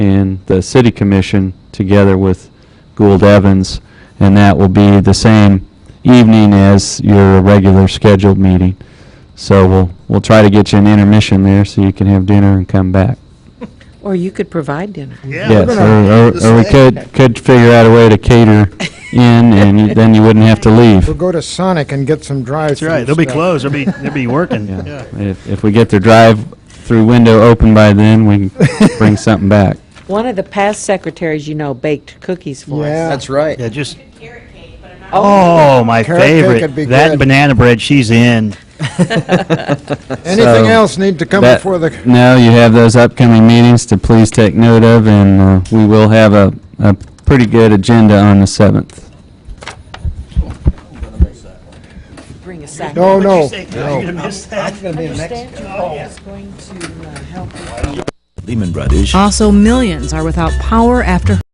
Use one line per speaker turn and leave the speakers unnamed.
and the city commission together with Gould Evans, and that will be the same evening as your regular scheduled meeting. So we'll, we'll try to get you an intermission there so you can have dinner and come back.
Or you could provide dinner.
Yes, or- or, or we could, could figure out a way to cater in, and you- then you wouldn't have to
We'll
leave.
go to Sonic and get some drive
That's right. They'll be closed. They'll be, they'll be working.
Yeah. If, if we get their drive-through window open by then, we can bring something back.
One of the past secretaries, you know, baked cookies for us.
Yeah.
That's right.
Yeah, just,
carrot cake, but I'm not.
oh, my
Carrot cake
favorite.
would be
That
good.
and banana bread, she's in.
Anything
So,
else need to come
That-
before the,
No, you have those upcoming meetings to please take note of, and uh, we will have a, a pretty good agenda on the 7th.
Bring a sack.
no, Oh, no.
Also, millions are without power after